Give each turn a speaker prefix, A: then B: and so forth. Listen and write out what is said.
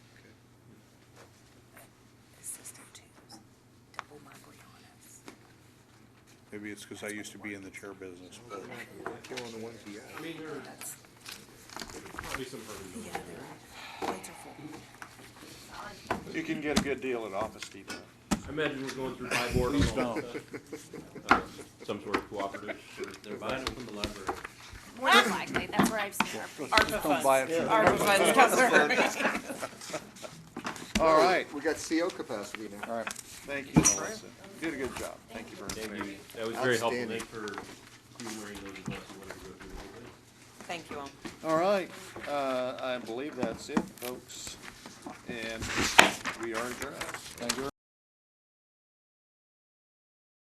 A: Maybe it's because I used to be in the chair business, but
B: Killing the ones you got.
C: I mean, there
D: Oh,
C: are
E: That's,
C: probably some perfect
E: yeah,
C: buildings.
E: they're, plates are full.
F: You can get a good deal at Office Depot.
C: I imagine we're going through buy board on all of that. Um, Some sort of cooperative. They're buying them from the library.
D: More than likely, that's where I've seen our ARPA
A: don't buy it
D: funds.
A: from
D: ARPA funds cover.
F: All right,
B: We got CO capacity now.
F: all right. Thank you, Melissa. You Did a good job. Thank you for
C: Thank you.
F: information.
C: That was very helpful.
B: Outstanding.
C: Thanks for humoring those of us who wanted to go through the whole thing.
E: Thank you all.
F: All right, uh, I believe that's it, folks. And we are adjourned. Thank you